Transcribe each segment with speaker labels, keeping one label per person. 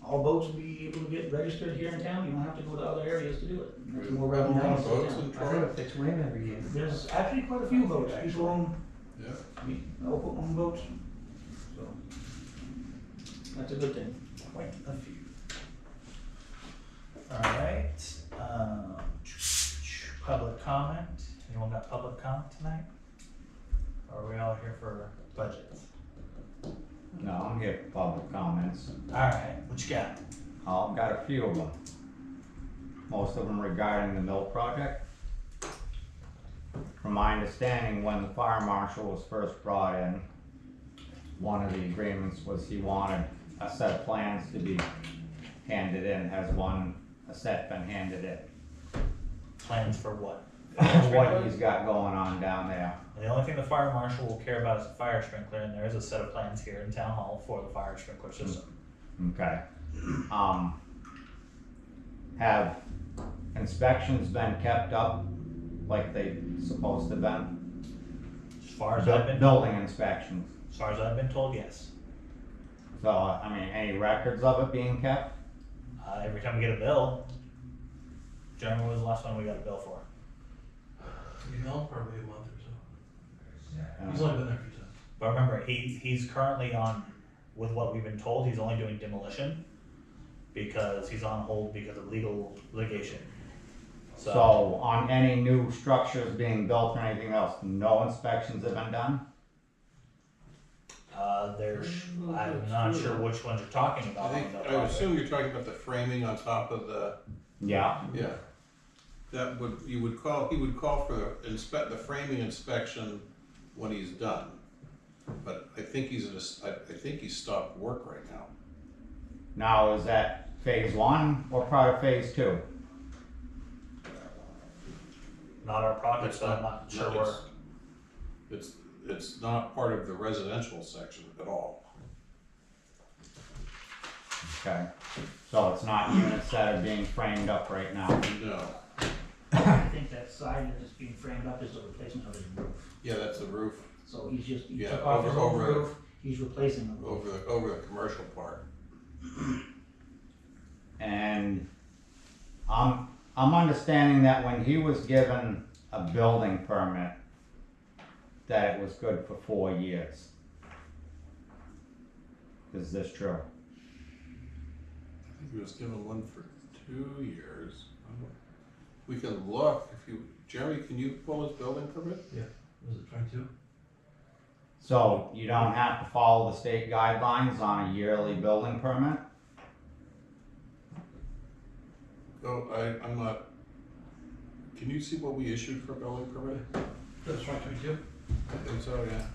Speaker 1: all boats will be able to get registered here in town, you don't have to go to other areas to do it. There's more
Speaker 2: How
Speaker 1: revenue.
Speaker 2: many
Speaker 1: to the
Speaker 2: boats
Speaker 1: town.
Speaker 2: in
Speaker 3: I go
Speaker 2: Troy?
Speaker 3: to Fitzwilliam every year.
Speaker 1: There's actually quite a few boats, people own,
Speaker 2: Yeah.
Speaker 1: I mean, local own boats, so. That's a good thing.
Speaker 4: Quite a few. Alright, um, public comment, anyone got public comment tonight? Or are we all here for budgets?
Speaker 5: No, I'm getting public comments.
Speaker 4: Alright, what you got?
Speaker 5: I've got a few of them. Most of them regarding the mill project. From my understanding, when the fire marshal was first brought in, one of the agreements was he wanted a set of plans to be handed in. Has one, a set been handed in?
Speaker 4: Plans for what?
Speaker 5: What he's got going on down there.
Speaker 4: The only thing the fire marshal will care about is the fire sprinkler, and there is a set of plans here in town hall for the fire sprinkler system.
Speaker 5: Okay. Um, have inspections been kept up like they supposed to been?
Speaker 4: As far as I've been,
Speaker 5: Building inspections.
Speaker 4: as far as I've been told, yes.
Speaker 5: So, I mean, any records of it being kept?
Speaker 4: Uh, every time we get a bill, Jeremy, when was the last one we got a bill for?
Speaker 6: You know, probably a month or so. He's
Speaker 5: Uh,
Speaker 6: only been there a few times.
Speaker 4: But remember, he he's currently on with what we've been told. He's only doing demolition because he's on hold because of legal litigation. So,
Speaker 5: So, on any new structures being built or anything else, no inspections have been done?
Speaker 4: uh, there's I'm not sure which ones you're talking about.
Speaker 2: I
Speaker 4: on
Speaker 2: think,
Speaker 4: the
Speaker 2: I would
Speaker 4: project.
Speaker 2: assume you're talking about the framing on top of the,
Speaker 5: Yeah,
Speaker 2: yeah. That would, you would call, he would call for the inspect, the framing inspection when he's done. But I think he's, in a s- I I think he's stopped work right now.
Speaker 5: now is that phase one or part of phase two?
Speaker 4: not our project,
Speaker 2: It's
Speaker 4: so I'm not sure where.
Speaker 2: it's- It's, it's not part of the residential section at all.
Speaker 5: Okay, so it's not units that are being framed up right now?
Speaker 2: No,
Speaker 1: I think that side that is being framed up is the replacement of his roof,
Speaker 2: yeah, that's the roof
Speaker 1: so he's just, he
Speaker 2: Yeah,
Speaker 1: took off his
Speaker 2: over-
Speaker 1: old
Speaker 2: over-
Speaker 1: roof, he's replacing the roof.
Speaker 2: over the, over the commercial part.
Speaker 5: And I'm, I'm understanding that when he was given a building permit, that it was good for four years. Is this true?
Speaker 2: I think he was given one for two years. I don't- We can look if you, Jeremy, can you pull his building permit?
Speaker 6: Was it twenty-two?
Speaker 5: So you don't have to follow the state guidelines on a yearly building permit?
Speaker 2: Oh, I, I'm not, can you see what we issued for building permit?
Speaker 6: That's twenty twenty-two?
Speaker 2: I think so, yeah.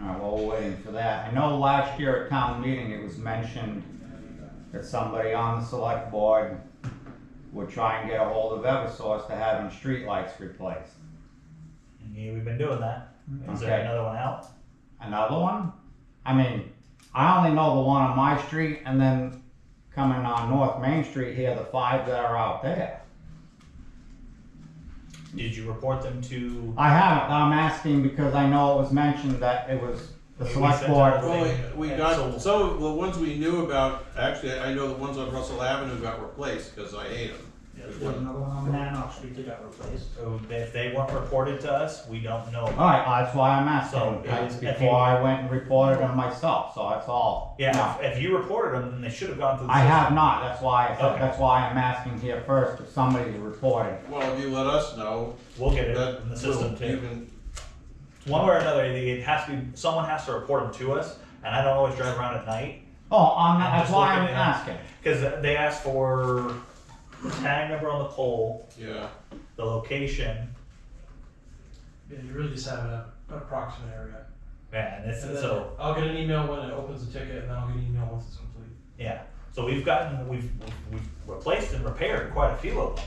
Speaker 5: Alright, well, we're waiting for that. I know last year at town meeting, it was mentioned that somebody on the select board would try and get a hold of Eversource to having streetlights replaced.
Speaker 4: Yeah, we've been doing that. Is
Speaker 5: Mm-hmm.
Speaker 4: there
Speaker 5: Okay.
Speaker 4: another one out?
Speaker 5: another one. I mean, I only know the one on my street, and then coming on North Main Street here, the five that are out there.
Speaker 4: Did you report them to?
Speaker 5: I haven't. I'm asking because I know it was mentioned that it was the
Speaker 4: We
Speaker 5: select
Speaker 4: sent out
Speaker 5: board.
Speaker 4: a-
Speaker 2: Well, we we
Speaker 4: And
Speaker 2: got,
Speaker 4: sold.
Speaker 2: some of the ones we knew about, actually, I know the ones on Russell Avenue got replaced, cause I hate them.
Speaker 1: There's another one on Mananock Street that got replaced.
Speaker 4: oh, If they weren't reported to us, we don't know.
Speaker 5: All right, that's why I'm asking.
Speaker 4: So,
Speaker 5: I-
Speaker 4: if you-
Speaker 5: before I went and reported them myself, so that's all. No.
Speaker 4: Yeah, if, if you reported them, then they should have gone through. The
Speaker 5: I
Speaker 4: system.
Speaker 5: have not. That's why. I said,
Speaker 4: Okay.
Speaker 5: That's why I'm asking here first if somebody's reported.
Speaker 2: Well, if you let us know,
Speaker 4: We'll get it
Speaker 2: that
Speaker 4: in the system
Speaker 2: will
Speaker 4: too.
Speaker 2: even,
Speaker 4: One way or another, it has to be someone has to report them to us, and I don't always drive around at night
Speaker 5: Oh, I'm not,
Speaker 4: I'm
Speaker 5: that's
Speaker 4: just
Speaker 5: why I'm
Speaker 4: looking at-
Speaker 5: asking.
Speaker 4: because they ask for the tag number on the pole,
Speaker 2: yeah,
Speaker 4: the location,
Speaker 6: Yeah, you really just have an approximate area.
Speaker 4: man. It's,
Speaker 6: And then
Speaker 4: so
Speaker 6: I'll get an email when it opens the ticket and then I'll get an email once it's complete.
Speaker 4: yeah. So we've gotten we've we've replaced and repaired quite a few of them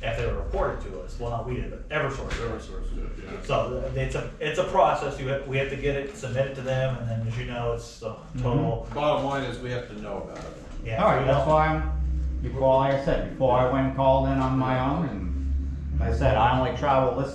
Speaker 4: if they were reported to us. Well, not we did, but EverSource. did.
Speaker 2: whatever source, yeah.
Speaker 4: So it's a it's a process. You have, we have to get it, submit it to them, and then as you know, it's the total.
Speaker 2: Bottom line is we have to know about it.
Speaker 4: Yeah.
Speaker 5: Mm-hmm. All
Speaker 4: we
Speaker 5: right,
Speaker 4: don't-
Speaker 5: that's why I'm, before, like I said, before I went and called in on my own, and like I said, I only travel this